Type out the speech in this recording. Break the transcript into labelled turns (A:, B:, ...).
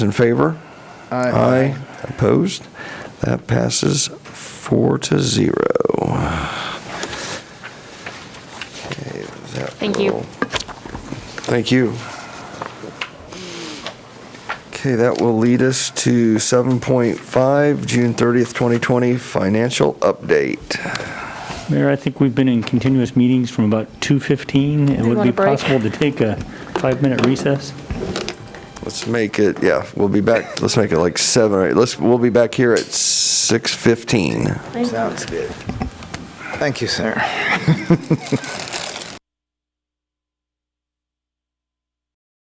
A: in favor?
B: Aye.
A: Opposed? That passes four to zero. Okay, that
C: Thank you.
A: will- Thank you. Okay, that will lead us to 7.5, June 30th, 2020, financial update.
D: Mayor, I think we've been in continuous meetings from about 2:15. It would
C: want
D: be
C: a break?
D: possible to take a five-minute recess?
A: Let's make it, yeah, we'll be back, let's make it like 7 or 8. Let's, we'll be back here at 6:15.
B: Sounds good. Thank you, sir.